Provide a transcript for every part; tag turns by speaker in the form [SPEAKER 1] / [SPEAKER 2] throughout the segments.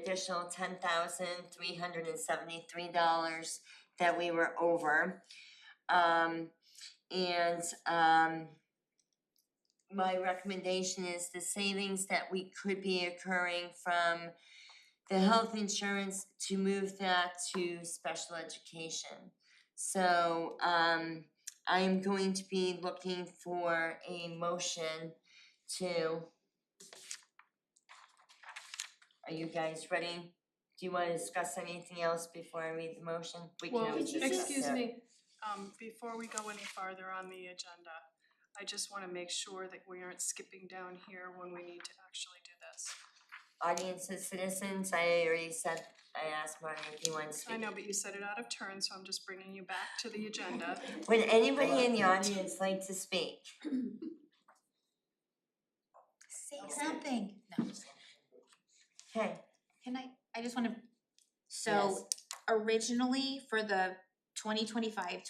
[SPEAKER 1] additional ten thousand three hundred and seventy-three dollars that we were over. Um, and, um, my recommendation is the savings that we could be occurring from the health insurance to move that to special education. So, um, I am going to be looking for a motion to are you guys ready? Do you wanna discuss anything else before I read the motion? We can
[SPEAKER 2] Well,
[SPEAKER 1] always discuss
[SPEAKER 2] excuse
[SPEAKER 1] that.
[SPEAKER 2] me, um, before we go any farther on the agenda, I just wanna make sure that we aren't skipping down here when we need to actually do this.
[SPEAKER 1] Audience and citizens, I already said, I asked Martin if he wants to speak.
[SPEAKER 2] I know, but you said it out of turn, so I'm just bringing you back to the agenda.
[SPEAKER 1] Would anybody in the audience like to speak?
[SPEAKER 3] Say something. No, I'm just kidding.
[SPEAKER 1] Okay,
[SPEAKER 3] can I, I just wanna, so originally for the 2025-2026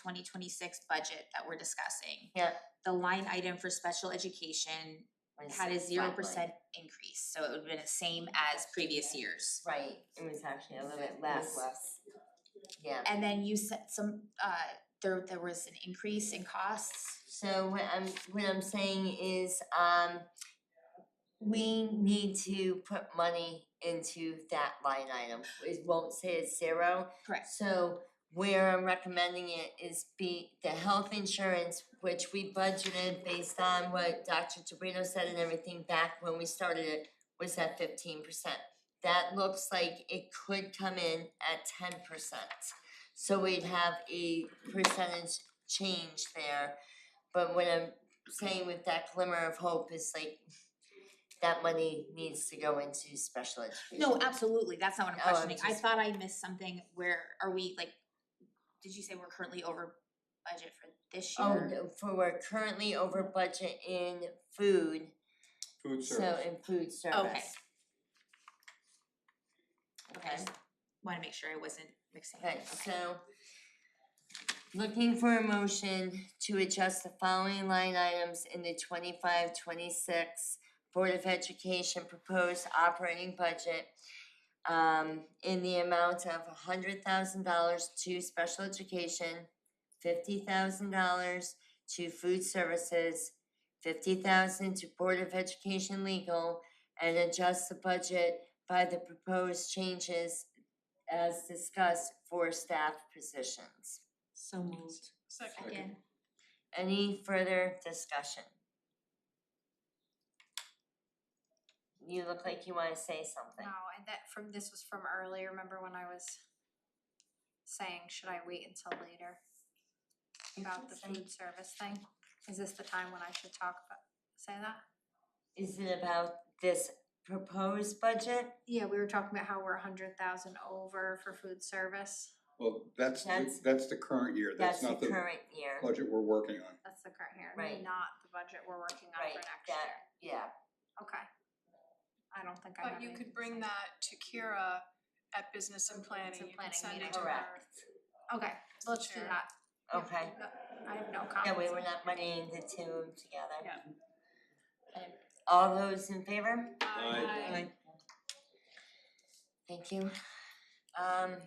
[SPEAKER 3] budget that we're discussing.
[SPEAKER 1] Yeah.
[SPEAKER 3] The line item for special education
[SPEAKER 1] yes.
[SPEAKER 3] had a zero percent increase, so it would have been the same as previous years.
[SPEAKER 1] Right, it was actually a little bit less. Yeah,
[SPEAKER 3] And then you said some, uh, there, there was an increase in costs.
[SPEAKER 1] so what I'm, what I'm saying is, um, we need to put money into that line item. It won't say it's zero,
[SPEAKER 3] Correct.
[SPEAKER 1] So where I'm recommending it is be the health insurance, which we budgeted based on what Dr. Tobrino said and everything back when we started it, was at fifteen percent. That looks like it could come in at ten percent. So we'd have a percentage change there. But what I'm saying with that glimmer of hope is like that money needs to go into special education.
[SPEAKER 3] No, absolutely, that's not what I'm
[SPEAKER 1] Oh, I'm
[SPEAKER 3] questioning, I
[SPEAKER 1] just-
[SPEAKER 3] thought I missed something, where are we, like, did you say we're currently over budget for this year?
[SPEAKER 1] Oh, no, for we're currently over budget in food,
[SPEAKER 4] Food
[SPEAKER 1] so
[SPEAKER 4] service.
[SPEAKER 1] in food service.
[SPEAKER 3] Okay, wanna make sure I wasn't mixing it,
[SPEAKER 1] Okay,
[SPEAKER 3] okay.
[SPEAKER 1] so looking for a motion to adjust the following line items in the twenty-five, twenty-six Board of Education proposed operating budget um in the amount of hundred thousand dollars to special education, fifty thousand dollars to food services, fifty thousand to Board of Education legal, and adjust the budget by the proposed changes as discussed for staff positions.
[SPEAKER 3] So moved.
[SPEAKER 2] Second,
[SPEAKER 3] Again,
[SPEAKER 1] Any further discussion? You look like you wanna say something.
[SPEAKER 5] No, and that from, this was from earlier, remember when I was saying, should I wait until later? About the food service thing, is this the time when I should talk about, say that?
[SPEAKER 1] Is it about this proposed budget?
[SPEAKER 5] Yeah, we were talking about how we're a hundred thousand over for food service,
[SPEAKER 4] Well, that's, the-
[SPEAKER 1] That's-
[SPEAKER 4] that's the current year,
[SPEAKER 1] That's
[SPEAKER 4] that's
[SPEAKER 1] the
[SPEAKER 4] not the
[SPEAKER 1] current year,
[SPEAKER 4] budget we're working on.
[SPEAKER 5] that's the current
[SPEAKER 1] Right.
[SPEAKER 5] year, not the budget we're working on
[SPEAKER 1] Right,
[SPEAKER 5] for next
[SPEAKER 1] that-
[SPEAKER 5] year,
[SPEAKER 1] yeah.
[SPEAKER 5] okay. I don't think I have
[SPEAKER 2] but you
[SPEAKER 5] anything
[SPEAKER 2] could
[SPEAKER 5] to
[SPEAKER 2] bring
[SPEAKER 5] say.
[SPEAKER 2] that to Kira at business and planning,
[SPEAKER 5] and
[SPEAKER 2] you could
[SPEAKER 5] planning
[SPEAKER 2] send it
[SPEAKER 5] meeting.
[SPEAKER 2] to her.
[SPEAKER 1] Correct.
[SPEAKER 5] Okay, let's do
[SPEAKER 2] Sure.
[SPEAKER 5] that.
[SPEAKER 1] Okay,
[SPEAKER 5] No, I have no comments.
[SPEAKER 1] yeah, we were not putting the two together.
[SPEAKER 2] Yeah.
[SPEAKER 1] Um, All those in favor?
[SPEAKER 2] Aye.
[SPEAKER 1] Thank you. Um.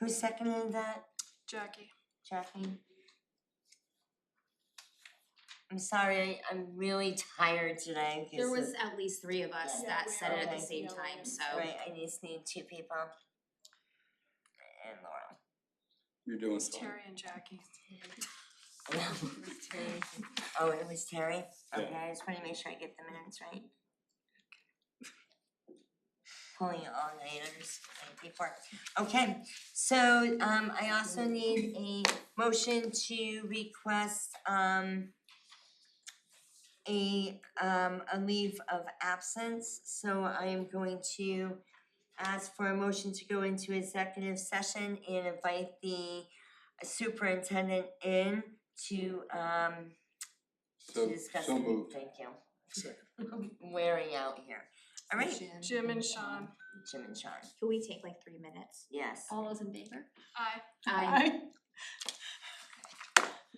[SPEAKER 1] Who seconded that,
[SPEAKER 2] Jackie,
[SPEAKER 1] Jackie? I'm sorry, I'm really tired today
[SPEAKER 3] there
[SPEAKER 1] 'cause
[SPEAKER 3] was
[SPEAKER 1] of-
[SPEAKER 3] at least three of us
[SPEAKER 2] Yeah,
[SPEAKER 3] that
[SPEAKER 2] we
[SPEAKER 3] said it at
[SPEAKER 1] are.
[SPEAKER 3] the same time, so.
[SPEAKER 1] right, I just need two people. And Laurel.
[SPEAKER 4] You're doing
[SPEAKER 2] it's
[SPEAKER 4] fine.
[SPEAKER 2] Terry and Jackie.
[SPEAKER 1] Oh, it was Terry?
[SPEAKER 4] Yeah.
[SPEAKER 1] Okay, I just wanna make sure I get the minutes right. Pulling all nighters, thank you for, okay, so um I also need a motion to request um a um a leave of absence, so I am going to ask for a motion to go into executive session and invite the superintendent in to um to
[SPEAKER 4] So,
[SPEAKER 1] discuss
[SPEAKER 4] so
[SPEAKER 1] it.
[SPEAKER 4] moved.
[SPEAKER 1] thank you. Wearing out here. All right,
[SPEAKER 2] Jim and Sean,
[SPEAKER 1] Jim and Sean,
[SPEAKER 3] Can we take like three minutes?
[SPEAKER 1] yes.
[SPEAKER 3] All those in favor?
[SPEAKER 2] aye.
[SPEAKER 3] Aye.